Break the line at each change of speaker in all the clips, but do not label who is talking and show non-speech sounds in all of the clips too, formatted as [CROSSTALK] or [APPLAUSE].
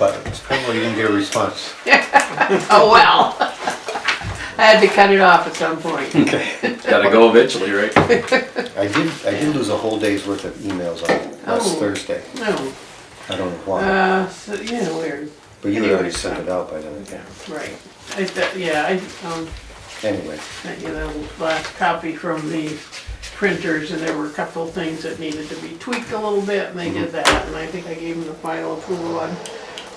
Well, you didn't get a response.
Oh, well. I had to cut it off at some point.
Gotta go eventually, right?
I did, I did lose a whole day's worth of emails on last
Oh.
Thursday.
No,
I don't know why,
uh, so, yeah, weird,
but you had already sent it out by then.
right. I, th- yeah, I, um,
Anyway,
sent you the last copy from the printers and there were a couple things that needed to be tweaked a little bit and they
Mm-hmm.
did that. And I think I gave them the final approval on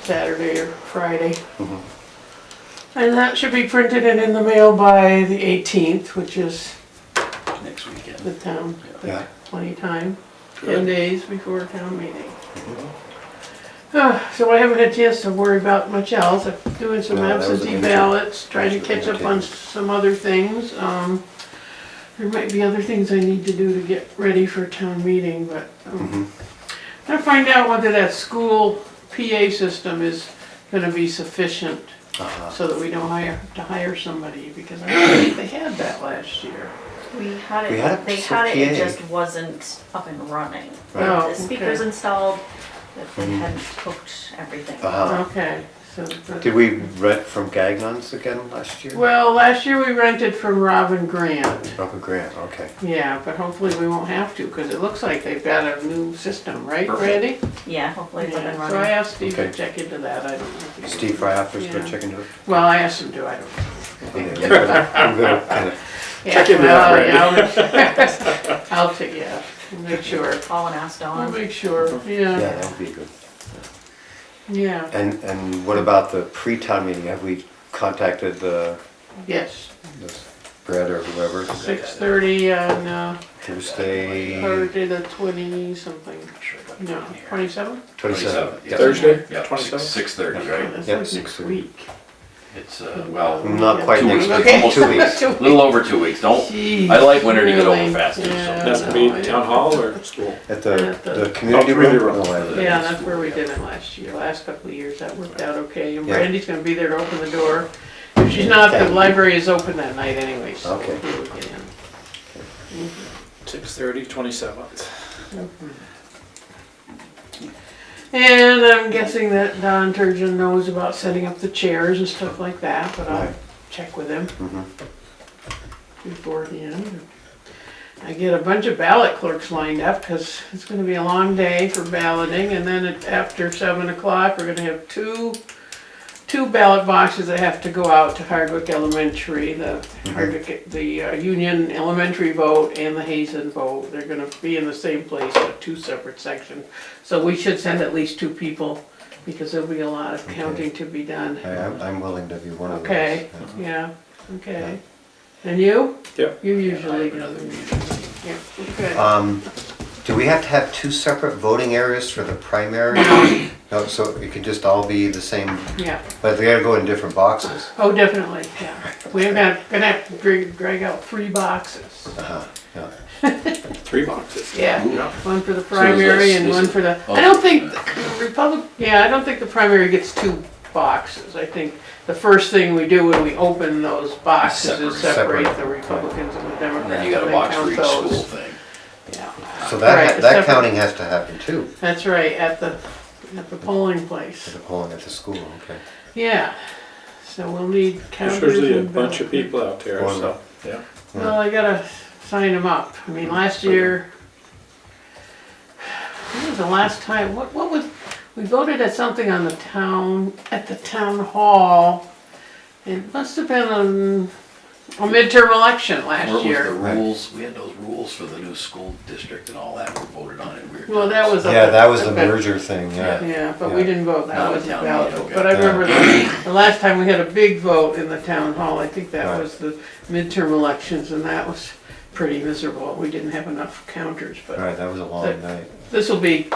Saturday or Friday.
Mm-hmm.
And that should be printed and in the mail by the eighteenth, which is
Next weekend.
the town,
Yeah.
the plenty time, ten
Good.
days before town meeting.
Mm-hmm.
Ah, So I haven't had a chance to worry about much else, I'm doing some
No, that was an
absentee
interesting-
ballots, trying to
interesting
catch up on
activity.
some other things, um. There might be other things I need to do to get ready for town meeting, but, um,
Mm-hmm.
gotta find out whether that school PA system is gonna be sufficient
uh-huh,
so that we don't hire, have to hire somebody, because I don't think they had that last year.
We had
We had a
it, they had it, it
PA.
just wasn't up and running.
Right.
Oh,
The speakers
okay.
installed, but they hadn't hooked everything.
Mm-hmm. uh-huh.
Okay, so. but-
Did we rent from Gagnon's again last year?
Well, last year we rented from Robin Grant,
Robert Grant, okay.
yeah, but hopefully we won't have to, because it looks like they've got a new system, right,
Perfect.
Randy?
Yeah, hopefully it's up
Yeah,
and
So I
running.
asked Steve to
Okay.
check into that, I don't know. if he-
Steve Fryhoff's
Yeah.
been checking
[LAUGHS]
to it.
Well, I asked him to, I don't.
Okay, we're gonna- we're gonna kinda-
Check
into
that, Randy. I'll [LAUGHS] check, yeah, we'll make sure,
Call and ask
we'll
Dawn.
make sure,
Yeah,
yeah,
that would be good.
yeah,
And, and what about the pre-town meeting? Have we contacted the,
yes.
the Brett or whoever?
Six thirty on uh,
Tuesday,
Thursday, the twenty something, [LAUGHS] no, twenty-seven?
twenty-seven.
Yeah.
Thursday,
Yeah,
twenty-seven?
Six thirty, right?
That's
Yeah,
like next
6:30.
week.
It's, uh, well,
Not quite
Two
next
weeks.
week,
Almost
two
[LAUGHS]
weeks.
a little over two weeks. Don't, I like winter to get over faster, so.
That's gonna be town hall or [LAUGHS] school?
At
Yeah,
the,
the-
the community
Oh, community
room?
room.
No, I-
Yeah, that's where we did it last year, last couple of years, that worked out okay, and
Yeah.
Brandy's gonna be there to open the door. If she's not, the
Okay.
library is open that night anyway, so
Okay.
we would get in.
Six thirty, twenty-seventh.
And I'm guessing that Don Turgeon knows about setting up the chairs and stuff like that, but I'll
Right.
check with him beforehand. I get a bunch of ballot clerks lined up, because it's gonna be a long day for balloting, and then at- after seven o'clock, we're gonna have two, two ballot boxes that have to go out to Hardwick Elementary, the
Mm-hmm.
Hardwick, the uh, Union Elementary vote and the Hazen vote. They're gonna be in the same place, but two separate sections. So we should send at least two people, because there'll be a lot of counting to be done.
I- I'm, I'm willing to be one of those.
Okay,
yeah.
yeah, okay. And you?
Yep.
You usually go. Yeah, okay.
Um, do we have to have two separate voting areas for the primary? No, so it could just all be the same,
Yeah,
but they gotta go in different boxes.
oh, definitely, yeah. We're gonna, gonna have to drag, drag out three boxes.
Yeah.
Three boxes.
Yeah,
Yeah.
one for the
there's a-
primary and one for the, I don't think, the Republic, yeah, I don't think the primary gets two boxes. I think the first thing we do when we open those boxes is
Separate.
separate the Republicans and the Democrats.
And then you got a
they
box
count
for each
those.
school thing.
Yeah,
So that, that
Right, separate.
counting has to happen too,
that's right, at the, at the polling place.
for the polling at the school, okay.
Yeah, so we'll need
There's
counters.
usually a
and
bunch of
ballot.
people out there,
One.
so, yeah.
Well, I gotta sign them up. I mean, last year, when was the last time, what, what was, we voted at something on the town, at the town hall. It must have been on a midterm election
What
last
was the
year.
rules? We had those rules for the new school district and all that were voted on in weird.
Well, that
times.
was. a-
Yeah, that was the
but-
merger thing, yeah.
Yeah, but we
Yeah.
didn't vote, that
Not
was a
town
ballot
meeting,
vote,
okay.
but I remember the, the last time we had a big vote in the town hall, I think that
Right.
was the midterm elections, and that was pretty miserable, we didn't have enough counters, but
Right, that was a long night.
this will be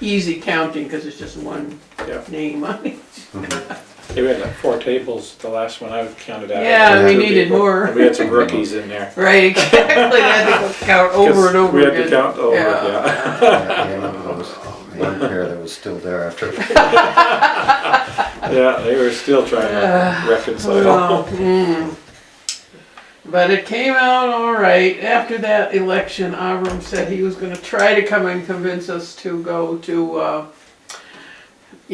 easy counting, because it's just one
Yeah.
name on it. [LAUGHS]
Yeah, we had like four tables, the last one I counted out.
Yeah,
we
Two
needed
people.
more.
And We had some rookies in there.
Right, exactly, I had to count [LAUGHS] over and
'Cause
over
We
again.
had to count over, yeah.
Yeah, I remember there was
[LAUGHS]
One pair that was still there after.
[LAUGHS] Yeah, they were still
[SIGHS]
trying to reconcile.
Well, mm. But it came out all right. After that election, Avram said he was gonna try to come and convince us to go to, uh,